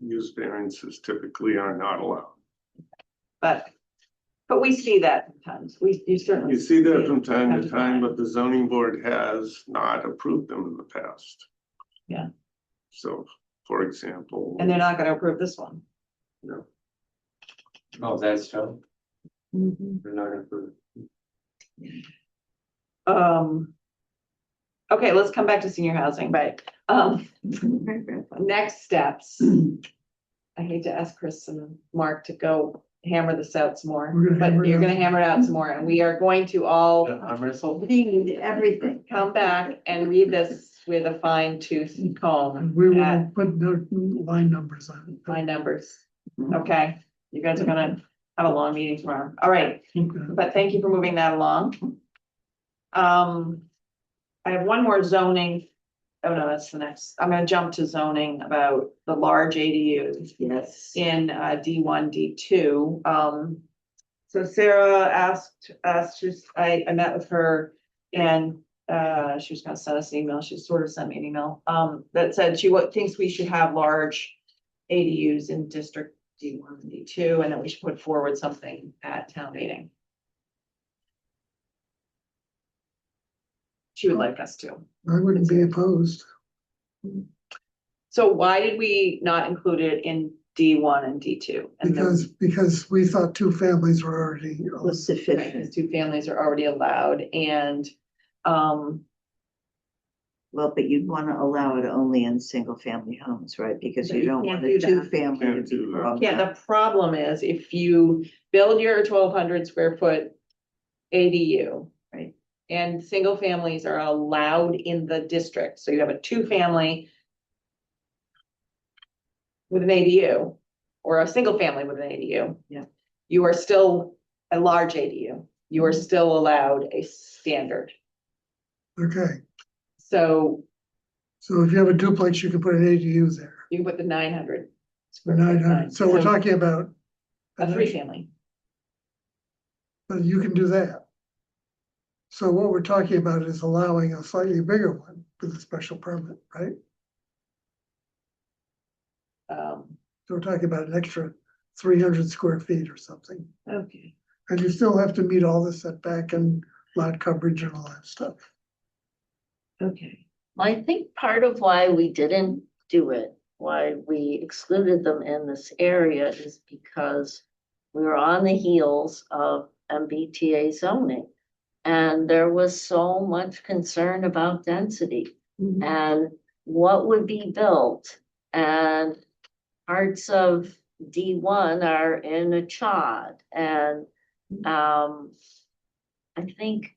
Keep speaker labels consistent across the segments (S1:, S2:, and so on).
S1: use variances typically are not allowed.
S2: but, but we see that sometimes, we, you certainly.
S1: You see that from time to time, but the zoning board has not approved them in the past.
S2: Yeah.
S1: So, for example.
S2: And they're not gonna approve this one.
S3: Oh, that's so, they're not gonna prove.
S2: Um. Okay, let's come back to senior housing.
S4: Right.
S2: Um, next steps. I hate to ask Chris and Mark to go hammer this out some more,
S3: We're gonna
S2: but
S3: hammer it
S2: you're
S3: out.
S2: gonna hammer it out some more and we are going to all.
S3: Arm wrestle?
S4: Read everything.
S2: come back and read this with a fine tooth comb.
S5: And we
S2: at
S5: will put the line numbers on. it.
S2: My numbers,
S1: Mm-hmm.
S2: okay? You guys are gonna have a long meeting tomorrow, all right,
S5: Okay.
S2: but thank you for moving that along. Um, I have one more zoning, oh no, that's the next, I'm gonna jump to zoning about the large ADUs
S4: Yes.
S2: in uh D one, D two, um. So Sarah asked, us to I I met with her and uh she was gonna send us an email, she sort of sent me an email. Um that said she what thinks we should have large ADUs in district D one and D two, and that we should put forward something at town meeting. She would like us to.
S5: I wouldn't be opposed.
S2: So why did we not include it in D one and D two? And then-
S5: Because, because we thought two families were already,
S4: Was
S2: Right,
S4: sufficient,
S2: because two families are already allowed and, um,
S4: well, but you'd wanna allow it only in single family homes, right, because
S2: But
S4: you
S2: you
S4: don't
S2: can't
S4: want
S2: do
S4: a
S2: that.
S4: two family.
S1: Can't do that.
S2: yeah, the problem is if you build your twelve hundred square foot ADU.
S4: Right.
S2: And single families are allowed in the district, so you have a two family. With an ADU or a single family with an ADU.
S4: Yeah.
S2: You are still a large ADU, you
S5: Mm-hmm.
S2: are still allowed a standard,
S5: okay,
S2: so
S5: so if you have a duplex, you can put an ADU there.
S2: you can put the nine hundred.
S5: For nine hundred, so we're talking about.
S2: A three family.
S5: But you can do that. So what we're talking about is allowing a slightly bigger one with a special permit, right?
S2: Um,
S5: So we're talking about an extra three hundred square feet or something.
S4: Okay.
S5: And you still have to meet all the setback and lot coverage and all that stuff.
S4: Okay.
S6: Well, I think part of why we didn't do it, why we excluded them in this area is because we were on the heels of MBTA zoning. And there was so much concern about density
S5: Mm-hmm.
S6: and what would be built. And parts of D one are in a chod and, um, I think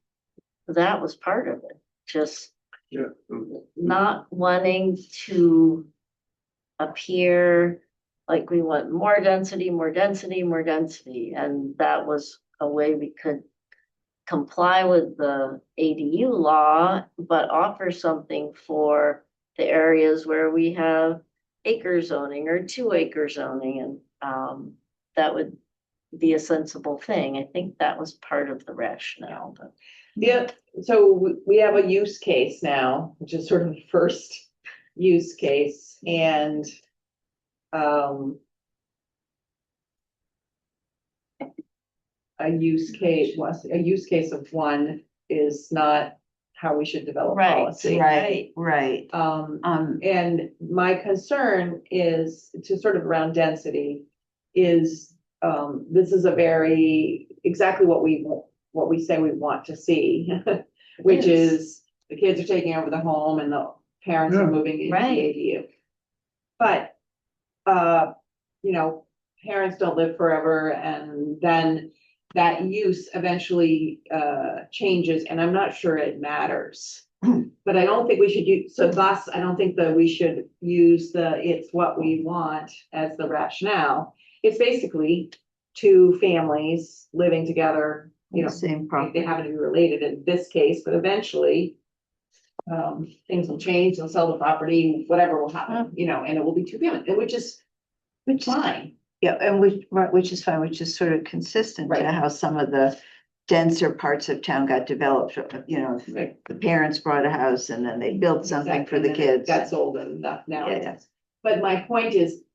S6: that was part of it, just
S1: Yeah.
S6: not wanting to appear like we want more density, more density, more density, and that was a way we could comply with the ADU law, but offer something for the areas where we have acre zoning or two acre zoning, and, um, that would be a sensible thing. I think that was part of the rationale, but.
S2: yeah, so we, we have a use case now, which is sort of the first use case and, um, a use case, was, a use case of one is not how we should develop
S6: Right,
S2: policy.
S4: Right, right,
S2: Um,
S4: um,
S2: And my concern is to sort of around density is, um, this is a very, exactly what we, wa- what we say we want to see. Which
S6: Yes.
S2: is the kids are taking over the home and the parents are
S5: Yeah.
S2: moving into the
S6: Right.
S2: ADU. But, uh, you know, parents don't live forever and then that use eventually, uh, changes and I'm not sure it matters. But I don't think we should use, so thus, I don't think that we should use the, it's what we want as the rationale. It's basically two families living together, you know,
S4: same
S2: like, they
S4: property,
S2: happen to be related in this case, but eventually. Um, things will change, they'll sell the property, whatever will happen,
S4: Mm.
S2: you know, and it will be two family, which is
S4: which is,
S2: fine.
S4: yeah, and which, right, which is fine, which is sort of consistent to
S2: Right.
S4: how some of the denser parts of town got developed, you know,
S2: Right.
S4: the parents bought a house and then they built something for the
S2: Exactly, and then
S4: kids.
S2: That's old and that now.
S4: Yeah,
S2: it's-
S4: yeah.
S2: But my point is,